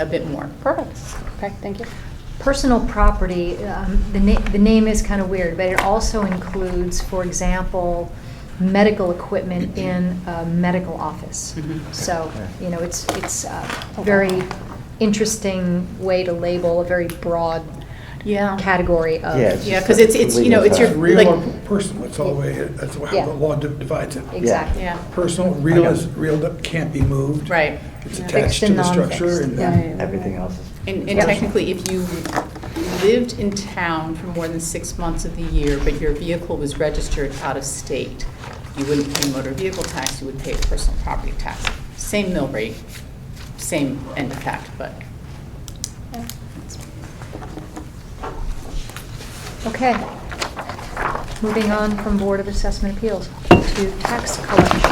a bit more. Perfect. Okay, thank you. Personal property, um, the na- the name is kind of weird, but it also includes, for example, medical equipment in a medical office. Mhm. So, Okay. you know, it's, it's a very interesting way to label a very broad Yeah. category of. Yeah, it's Yeah, just because a it's, it's, you know, it's your, legal Real like, or personal, that's all the way, it- that's how Yeah. the law di- divides it. Exactly. yeah, Personal, real I is, got it. real that can't be moved. right. It's Yeah. attached Fixed to and the structure non-fixed, and yeah. then Everything else is. And and Yeah. technically, if you lived in town for more than six months of the year, but your vehicle was registered out of state, you wouldn't pay motor vehicle tax, you would pay personal property tax. Same mill rate, same end effect, but Okay. Moving on from Board of Assessment Appeals to tax collection.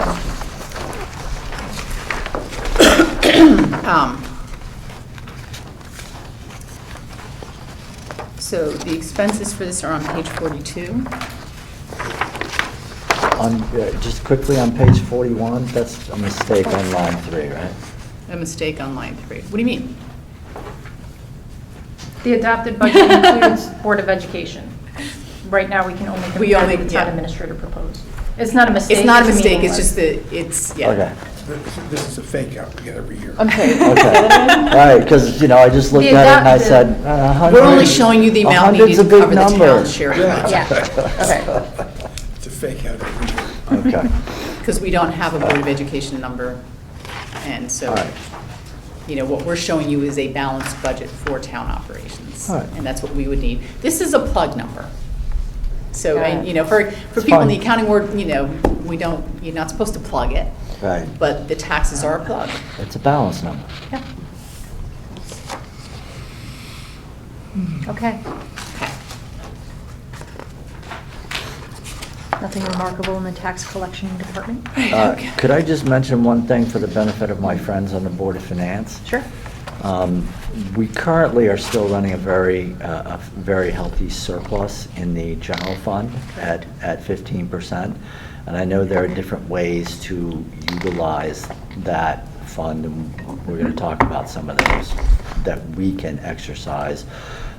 Um, So the expenses for this are on page 42. On, uh, just quickly on page 41, that's a mistake on line three, right? A mistake on line three. What do you mean? The adopted budget includes Board of Education. Right now, we can only We compare only- with town yeah. administrator proposed. It's not a mistake. It's not a mistake, it's meaningless. just that, it's, Okay, yeah. this- this is a fake out we get every year. okay. All right, because, you know, I just looked at it and I adopted- said, uh, a hundred. We're only showing you the a amount hundred's needed to a big cover the town number. share of Yeah. budget. It's a fake out every year. Okay, Because we don't have a Board of Education number, and so, all right. you know, what we're showing you is a balanced budget for town operations. All right. And that's what we would need. This is a plug number. So, Got and, it. you know, for, for It's people in the fine. accounting world, you know, we don't, you're not supposed to plug it, Right, but the taxes are a plug. it's a balance number. Yeah. Okay. Okay. Nothing remarkable in the tax collection department? Uh, Could I just mention one thing for the benefit of my friends on the Board of Finance? Sure. Um, We currently are still running a very, uh, a very healthy surplus in the general fund at, at 15%. And I know there are different ways to utilize that fund, and we're going to talk about some of those that we can exercise.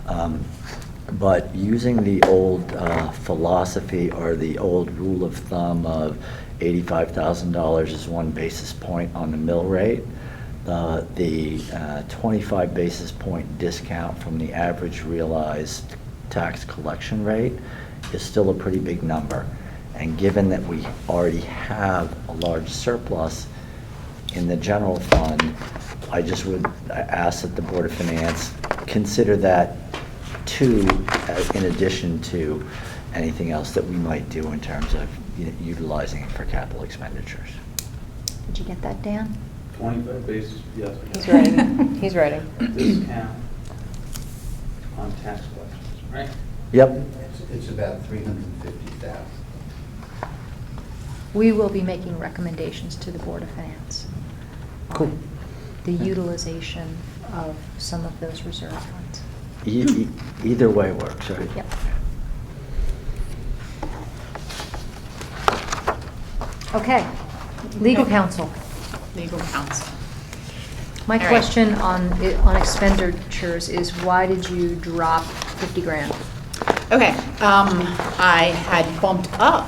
Um, But using the old uh, philosophy or the old rule of thumb of $85,000 is one basis point on the mill rate, uh, the uh, 25 basis point discount from the average realized tax collection rate is still a pretty big number. And given that we already have a large surplus in the general fund, I just would ask that the Board of Finance consider that too, uh, in addition to anything else that we might do in terms of u- utilizing it for capital expenditures. Did you get that, Dan? 25 basis, yes. He's writing, he's writing. Discount on tax collections, right? Yep, It's- It's about 350,000. We will be making recommendations to the Board of Finance. Cool. on The utilization of some of those reserve funds. E- e- either way works, right? Yep. Okay, legal Okay. counsel. Legal counsel. My All right. question on, i- on expenditures is why did you drop 50 grand? Okay, um, I had bumped up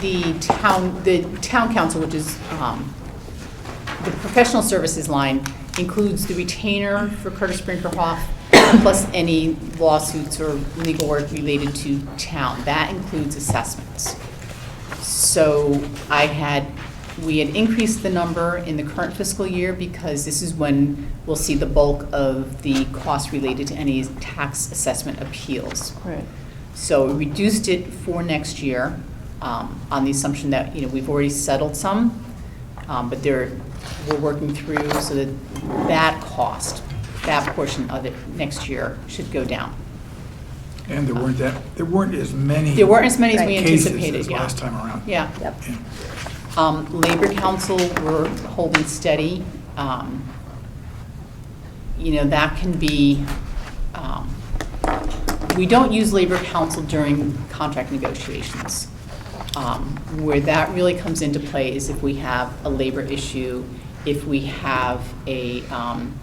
the town, the town council, which is, um, the professional services line includes the retainer for Curtis Brinkerhoff, plus any lawsuits or legal work related to town. That includes assessments. So I had, we had increased the number in the current fiscal year because this is when we'll see the bulk of the costs related to any tax assessment appeals. Right. So we reduced it for next year um, on the assumption that, you know, we've already settled some, um, but there, we're working through so that that cost, that portion of it next year should go down. And there weren't that, there weren't as many. There weren't as many as we Right. Cases anticipated, as yeah. last time around. Yeah. Yep. Yeah. Um, Labor Council, we're holding steady. Um, You know, that can be, um, we don't use Labor Council during contract negotiations. Um, Where that really comes into play is if we have a labor issue, if we have a, um,